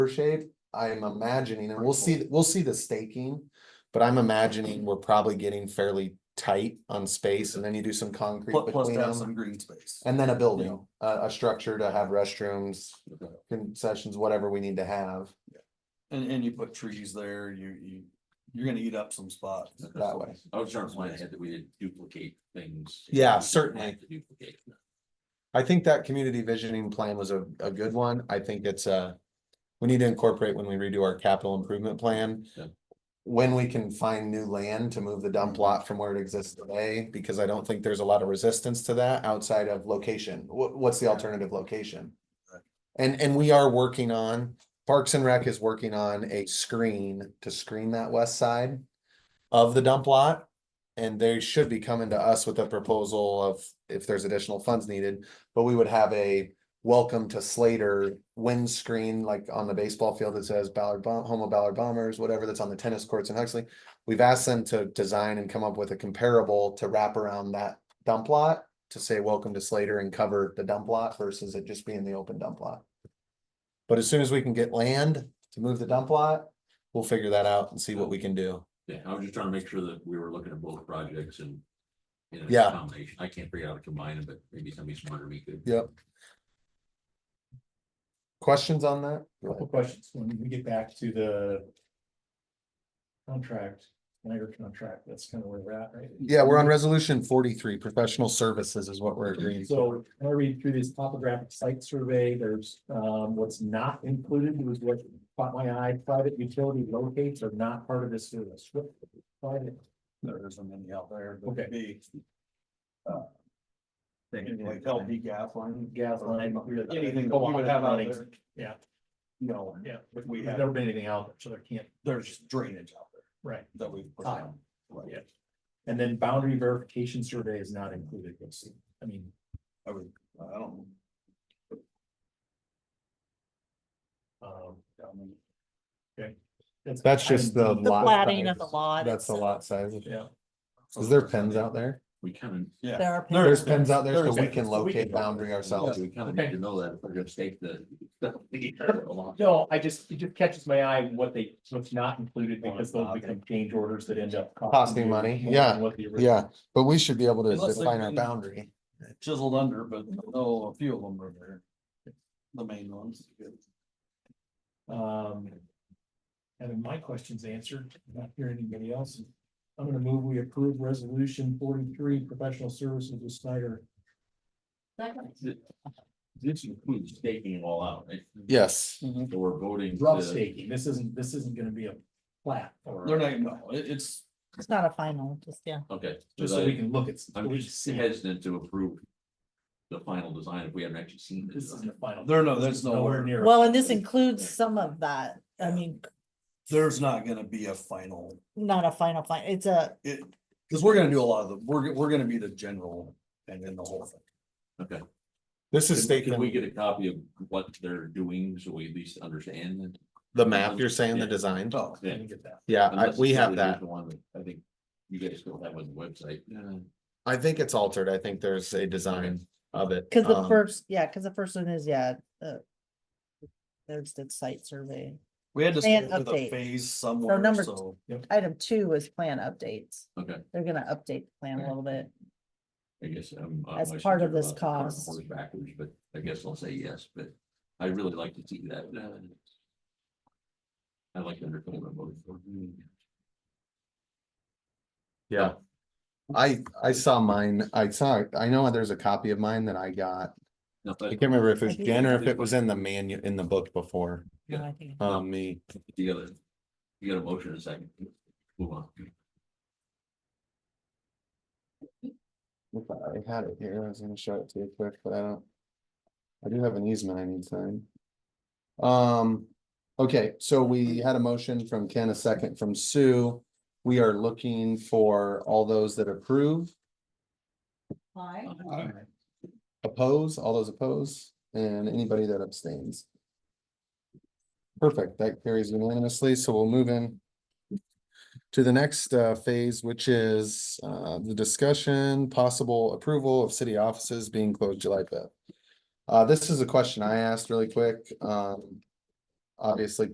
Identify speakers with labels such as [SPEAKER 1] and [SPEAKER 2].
[SPEAKER 1] shape, I'm imagining, and we'll see, we'll see the staking. But I'm imagining we're probably getting fairly tight on space and then you do some concrete
[SPEAKER 2] Plus, plus
[SPEAKER 1] between
[SPEAKER 2] to have
[SPEAKER 1] them.
[SPEAKER 2] some green space.
[SPEAKER 1] And then a building, a, a structure to have restrooms, concessions, whatever we need to have
[SPEAKER 2] And, and you put trees there, you, you, you're gonna eat up some spots.
[SPEAKER 1] that way.
[SPEAKER 3] I was trying to plan ahead that we didn't duplicate things.
[SPEAKER 1] Yeah,
[SPEAKER 3] We didn't
[SPEAKER 1] certainly.
[SPEAKER 3] have to Duplicate.
[SPEAKER 1] I think that community visioning plan was a, a good one. I think it's a, we need to incorporate when we redo our capital improvement plan.
[SPEAKER 3] Yeah.
[SPEAKER 1] When we can find new land to move the dump lot from where it exists today, because I don't think there's a lot of resistance to that outside of location. What, what's the alternative location?
[SPEAKER 2] Right.
[SPEAKER 1] And, and we are working on, Parks and Rec is working on a screen to screen that west side of the dump lot. And they should be coming to us with a proposal of if there's additional funds needed but we would have a welcome to Slater windscreen, like on the baseball field that says Ballard Bom- home of Ballard Bombers, whatever that's on the tennis courts in Huxley. We've asked them to design and come up with a comparable to wrap around that dump lot to say welcome to Slater and cover the dump lot versus it just being the open dump lot. But as soon as we can get land to move the dump lot, we'll figure that out and see what we can do.
[SPEAKER 3] Yeah, I was just trying to make sure that we were looking at both projects and. in a
[SPEAKER 1] Yeah.
[SPEAKER 3] Combination. I can't figure out how to combine them, but maybe somebody smarter than me could.
[SPEAKER 1] Yep. Questions on that?
[SPEAKER 4] Couple questions, when we get back to the. Contract, labor contract, that's kind of where we're at, right?
[SPEAKER 1] Yeah, we're on resolution forty-three, professional services is what we're agreeing. to.
[SPEAKER 4] So when I read through this topographic site survey, there's um what's not included was what caught my eye, private utility locates are not part of this service. What- Private,
[SPEAKER 2] There isn't any out there. that
[SPEAKER 4] Okay.
[SPEAKER 2] Be. uh, Thing
[SPEAKER 4] Anything
[SPEAKER 2] like
[SPEAKER 4] like
[SPEAKER 2] LP gas line.
[SPEAKER 4] gas line.
[SPEAKER 2] Anything that we would have out there.
[SPEAKER 4] Yeah.
[SPEAKER 2] You know,
[SPEAKER 4] Yeah,
[SPEAKER 2] if we
[SPEAKER 4] we
[SPEAKER 2] have-
[SPEAKER 4] have never been anything out, there, so there can't,
[SPEAKER 2] there's just drainage out there
[SPEAKER 4] right,
[SPEAKER 2] that we've put
[SPEAKER 4] Tile.
[SPEAKER 2] down. Right.
[SPEAKER 4] Yeah. and then boundary verification survey is not included, you'll see, I mean.
[SPEAKER 2] I would, I don't.
[SPEAKER 4] Um, Okay. That's-
[SPEAKER 1] That's just the
[SPEAKER 4] item D.
[SPEAKER 5] The
[SPEAKER 1] lot
[SPEAKER 5] plating of the
[SPEAKER 1] size.
[SPEAKER 5] lot.
[SPEAKER 1] That's the
[SPEAKER 5] itself.
[SPEAKER 1] lot size.
[SPEAKER 4] Yeah,
[SPEAKER 1] Is there pens out there?
[SPEAKER 3] We kind
[SPEAKER 2] Yeah.
[SPEAKER 5] There are
[SPEAKER 2] There
[SPEAKER 1] There's
[SPEAKER 2] is.
[SPEAKER 1] pens out there so
[SPEAKER 2] There's
[SPEAKER 1] we
[SPEAKER 2] pens.
[SPEAKER 1] can
[SPEAKER 4] So we can
[SPEAKER 1] locate
[SPEAKER 4] locate.
[SPEAKER 1] boundary
[SPEAKER 3] of,
[SPEAKER 1] ourselves.
[SPEAKER 3] we kind of need
[SPEAKER 4] Okay.
[SPEAKER 3] to know that if we're gonna stake the.
[SPEAKER 4] no, I just, it just catches my eye what they, what's not included because those become change orders that end up.
[SPEAKER 1] Costing
[SPEAKER 4] you
[SPEAKER 1] money,
[SPEAKER 4] more
[SPEAKER 1] yeah,
[SPEAKER 4] than what the original-
[SPEAKER 1] Yeah, but we should be able to
[SPEAKER 2] Unless they've
[SPEAKER 1] define our
[SPEAKER 2] been-
[SPEAKER 1] boundary.
[SPEAKER 2] Chiseled under, but no, a few of them are there. The main ones.
[SPEAKER 4] Um. Having my questions answered, not hearing anybody else. I'm gonna move, we approve resolution forty-three, professional services with Snyder.
[SPEAKER 3] This includes staking it all out, right?
[SPEAKER 1] Yes,
[SPEAKER 3] So we're voting.
[SPEAKER 4] Rough
[SPEAKER 3] to-
[SPEAKER 4] staking, this isn't, this isn't gonna be a plat or.
[SPEAKER 2] They're not, no, it- it's,
[SPEAKER 5] It's not a final, just, yeah.
[SPEAKER 3] Okay.
[SPEAKER 4] Just
[SPEAKER 3] so
[SPEAKER 4] so
[SPEAKER 3] that-
[SPEAKER 4] we can look at.
[SPEAKER 3] I'm
[SPEAKER 4] we
[SPEAKER 3] just
[SPEAKER 4] see.
[SPEAKER 3] hesitant to approve. The final design if we haven't actually seen
[SPEAKER 4] This
[SPEAKER 3] this.
[SPEAKER 4] isn't the final.
[SPEAKER 2] There no- there's
[SPEAKER 4] This is
[SPEAKER 2] no order.
[SPEAKER 4] near.
[SPEAKER 5] Well, and this includes some of that. I mean,
[SPEAKER 2] there's not gonna be a final,
[SPEAKER 5] not a final, fin- it's a,
[SPEAKER 2] it, cause we're gonna do a lot of the, we're, we're gonna be the general and then the whole thing.
[SPEAKER 3] Okay.
[SPEAKER 1] this is
[SPEAKER 3] Can can we
[SPEAKER 1] staking
[SPEAKER 3] get a copy of what they're doing, so we at least understand? it?
[SPEAKER 1] the map, you're saying the design?
[SPEAKER 2] No,
[SPEAKER 4] I didn't get that.
[SPEAKER 1] Yeah, I,
[SPEAKER 3] Unless
[SPEAKER 1] we
[SPEAKER 3] it's
[SPEAKER 1] have
[SPEAKER 3] the
[SPEAKER 1] that.
[SPEAKER 3] original One, that I think you guys still have on the website.
[SPEAKER 1] I think it's altered. I think there's a design of it.
[SPEAKER 5] cause the
[SPEAKER 1] Um,
[SPEAKER 5] first, yeah, cause the first one is, yeah, uh. There's the site survey.
[SPEAKER 2] we had to
[SPEAKER 5] Plan
[SPEAKER 2] stick with a
[SPEAKER 5] update.
[SPEAKER 2] phase somewhere,
[SPEAKER 5] number-
[SPEAKER 2] so.
[SPEAKER 5] Item two is plan updates.
[SPEAKER 3] Okay.
[SPEAKER 5] They're gonna update the plan a
[SPEAKER 3] Okay.
[SPEAKER 5] little bit.
[SPEAKER 3] I guess I'm. uh, I'm
[SPEAKER 5] As
[SPEAKER 3] always
[SPEAKER 5] part of
[SPEAKER 3] concerned
[SPEAKER 5] this
[SPEAKER 3] about the cart and
[SPEAKER 5] cost.
[SPEAKER 3] horse Backwards, but I guess I'll say yes, but I really like to see that. uh, I like the undercover vote. for it.
[SPEAKER 1] Yeah. I, I saw mine. I saw, I know there's a copy of mine that I got.
[SPEAKER 3] No,
[SPEAKER 1] I
[SPEAKER 3] but
[SPEAKER 1] can't remember if it
[SPEAKER 5] I
[SPEAKER 1] was
[SPEAKER 5] think
[SPEAKER 1] Jen or
[SPEAKER 3] it's-
[SPEAKER 1] if it was in the manu, in the book before,
[SPEAKER 5] No,
[SPEAKER 3] Yeah.
[SPEAKER 5] I think-
[SPEAKER 1] um, me.
[SPEAKER 3] you got a, you got a motion in a second. Move on.
[SPEAKER 1] If I had it here, I was gonna show it to you quick, but I don't. I do have an easement I need signed. Um, okay, so we had a motion from Ken, a second from Sue. We are looking for all those that approve, oppose, all those oppose, and anybody that abstains. Perfect, that carries unanimously, so we'll move in. To the next uh phase, which is uh the discussion, possible approval of city offices being closed July fifth. Uh, this is a question I asked really quick, um. obviously